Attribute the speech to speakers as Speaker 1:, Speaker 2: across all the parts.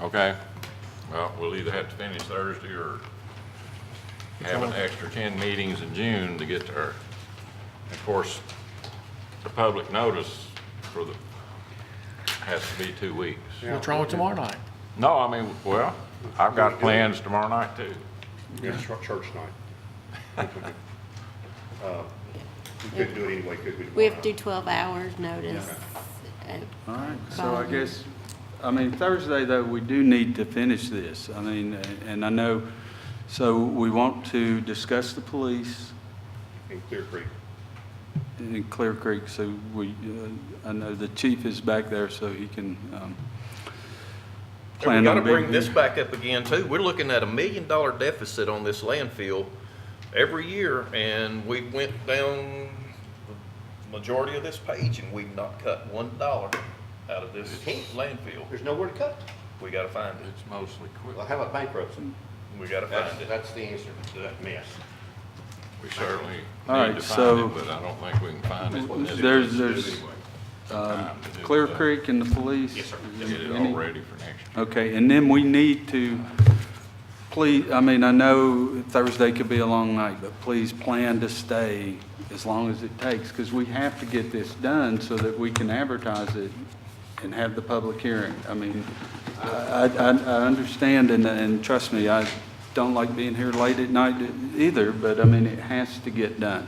Speaker 1: Okay, well, we'll either have to finish Thursday or have an extra 10 meetings in June to get to her. Of course, the public notice for the, has to be two weeks.
Speaker 2: What's wrong with tomorrow night?
Speaker 1: No, I mean, well, I've got plans tomorrow night too.
Speaker 3: Yeah, it's chur- church night. Uh, We couldn't do it anyway, could we?
Speaker 4: We have to do
Speaker 3: tomorrow?
Speaker 4: 12 hours notice.
Speaker 5: All right, so I guess, I mean, Thursday, though, we do need to finish this. I mean, and I know, so we want to discuss the police
Speaker 3: In Clear Creek.
Speaker 5: in Clear Creek, so we, uh, I know the chief is back there, so he can um,
Speaker 6: And we
Speaker 5: plan
Speaker 6: gotta
Speaker 5: on being...
Speaker 6: bring this back up again too. We're looking at a million dollar deficit on this landfill every year, and we went down the majority of this page, and we've not cut one dollar out of this landfill.
Speaker 3: There's nowhere to cut.
Speaker 6: We gotta find it.
Speaker 1: It's mostly quick.
Speaker 3: Well, how about bankruptcy?
Speaker 6: We gotta
Speaker 3: That's,
Speaker 6: find it.
Speaker 3: that's the answer to that mess.
Speaker 1: We certainly
Speaker 5: All right,
Speaker 1: need to find
Speaker 5: so-
Speaker 1: it, but I don't think we can find it. in this
Speaker 5: There's-
Speaker 1: budget
Speaker 5: there's-
Speaker 1: anyway.
Speaker 5: uh,
Speaker 1: Time to do
Speaker 5: Clear
Speaker 1: that.
Speaker 5: Creek and the police?
Speaker 3: Yes, sir.
Speaker 1: Get it
Speaker 5: Any-
Speaker 1: all ready for next year.
Speaker 5: Okay, and then we need to, please, I mean, I know Thursday could be a long night, but please plan to stay as long as it takes, because we have to get this done so that we can advertise it and have the public hearing. I mean, I, I, I understand, and, and trust me, I don't like being here late at night either, but I mean, it has to get done.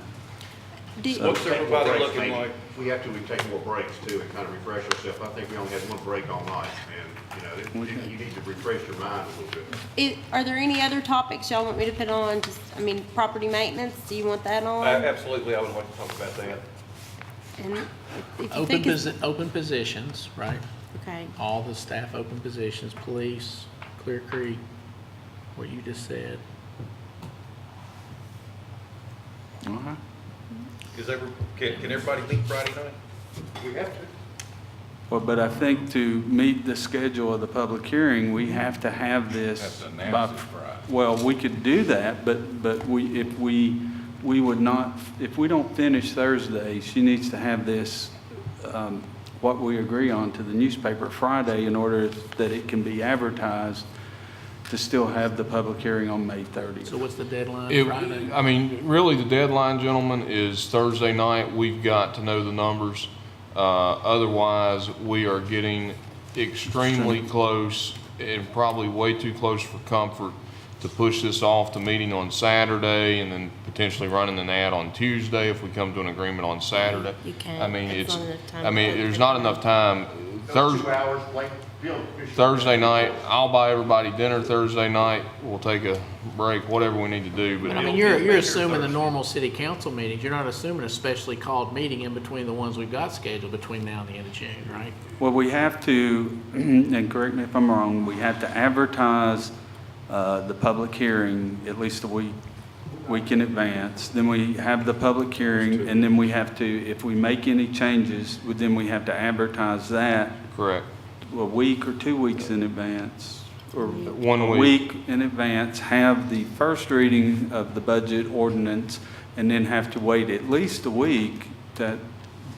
Speaker 4: Do-
Speaker 6: What's everybody
Speaker 3: Breaks,
Speaker 6: looking
Speaker 3: maybe.
Speaker 6: like?
Speaker 3: We have to, we take more breaks too and kind of refresh ourselves. I think we only had one break all night and, you know, it- you need to refresh your mind a little bit.
Speaker 4: i- Are there any other topics y'all want me to put on? Just, I mean, property maintenance, do you want that
Speaker 6: I-
Speaker 5: Uh,
Speaker 4: on?
Speaker 6: Absolutely, I would like to talk about that.
Speaker 4: And if- if you
Speaker 2: Open
Speaker 4: think it's-
Speaker 2: posi- open positions, right?
Speaker 4: Okay,
Speaker 2: All the staff open positions, police, Clear Creek, what you just said.
Speaker 5: All right.
Speaker 6: Is every, can, can everybody meet Friday night?
Speaker 3: We have to.
Speaker 5: Well, but I think to meet the schedule of the public hearing, we have to have this.
Speaker 1: Have to
Speaker 5: by-
Speaker 1: announce it Friday.
Speaker 5: Well, we could do that, but, but we, if we, we would not, if we don't finish Thursday, she needs to have this, um, what we agree on to the newspaper Friday in order that it can be advertised to still have the public hearing on May
Speaker 2: So
Speaker 5: 30th.
Speaker 2: what's the deadline
Speaker 7: It-
Speaker 2: Friday?
Speaker 7: I mean, really, the deadline, gentlemen, is Thursday night. We've got to know the numbers. Uh, Otherwise, we are getting extremely close and probably way too close for comfort to push this off to meeting on Saturday and then potentially running an ad on Tuesday if we come to an agreement on Saturday.
Speaker 4: You can't.
Speaker 7: I mean,
Speaker 4: That's
Speaker 7: it's,
Speaker 4: not enough time
Speaker 7: I
Speaker 4: to
Speaker 7: mean,
Speaker 4: vote.
Speaker 7: there's not enough time. Thursday.
Speaker 3: Two hours late, Bill.
Speaker 7: Thursday night, I'll buy everybody dinner Thursday night. We'll take a break, whatever we need to do, but.
Speaker 2: I mean, you're, you're assuming the normal city council meetings. You're not assuming a specially called meeting in between the ones we've got scheduled between now and the end of June, right?
Speaker 5: Well, we have to, and correct me if I'm wrong, we have to advertise uh, the public hearing at least a week, week in advance. Then we have the public hearing, and then we have to, if we make any changes, then we have to advertise that
Speaker 7: Correct.
Speaker 5: a week or two weeks in advance, or
Speaker 7: One
Speaker 5: a
Speaker 7: week.
Speaker 5: week in advance, have the first reading of the budget ordinance, and then have to wait at least a week that,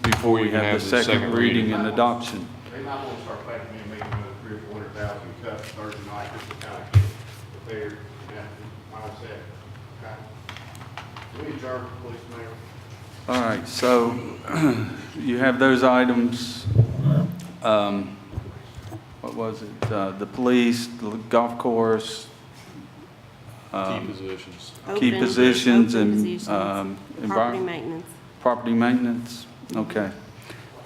Speaker 5: before we
Speaker 7: you can
Speaker 5: have the second reading and adoption.
Speaker 3: They might want to start planning to make another three or four hundred thousand cuts Thursday night, just to kind of get prepared, and that mindset, okay? We adjourn, please, Mayor.
Speaker 5: All right, so you have those items, um, what was it, Uh, the police, the golf course,
Speaker 7: Key
Speaker 5: um,
Speaker 7: uh, positions.
Speaker 5: key
Speaker 4: open-
Speaker 5: positions
Speaker 4: open
Speaker 5: and
Speaker 4: positions,
Speaker 5: um, envi-
Speaker 4: Property maintenance.
Speaker 5: property maintenance, okay.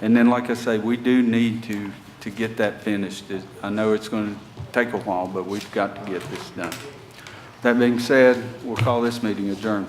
Speaker 5: And then, like I say, we do need to, to get that finished. It- I know it's going to take a while, but we've got to get this done. That being said, we'll call this meeting adjourned.